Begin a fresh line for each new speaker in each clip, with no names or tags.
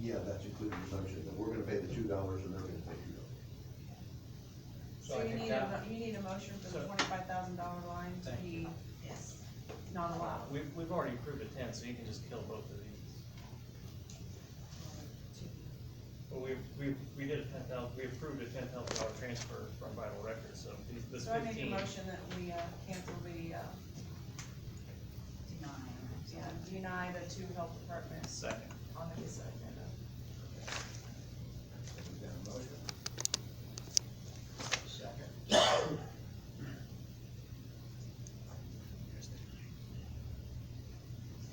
yeah, that's included assumption, that we're gonna pay the two dollars and they're gonna pay two dollars.
So
I
you
think
need
that-
a, mo- you need a motion for the
So-
twenty-five thousand dollar line to
Thank
be
you.
Yes.
not allowed.
We've, we've already approved a ten, so you can just kill both of these. But we, we, we did a ten thousand, we approved a ten thousand dollar transfer from Vital Records, so these- this
So I make a
fifteen.
motion that we, uh, cancel the, uh,
Deny.
yeah, deny the two health departments
Second.
on the consent agenda.
Is that a motion?
Second.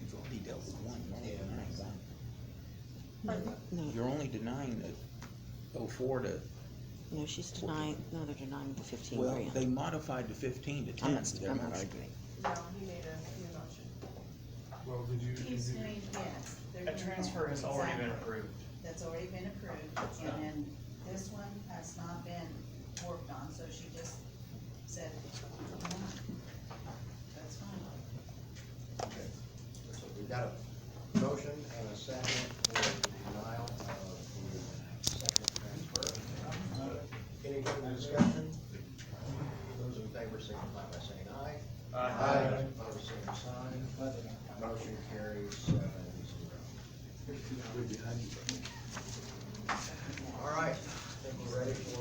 You've already dealt with one, you're only
Yeah.
denying one.
No, no,
You're only denying the oh four to,
no, she's denying, no, they're denying the fifteen
well,
grand.
they modified the fifteen to
I'm
ten.
not,
They're
I'm
not
not
arguing.
arguing.
No, he made a new motion.
Well, did you, did
He's
you,
doing, yes. they're
A
doing
transfer
that.
has already been
Exactly.
approved.
That's already been approved,
Yeah.
and then this one has not been worked on, so she just said, that's fine.
Okay. So we got a motion and a second for denial of the second transfer. Any further discussion? Those in favor signify by saying aye.
Uh,
Opposed, same sign. Motion carries seven zero. All right, I think we're ready for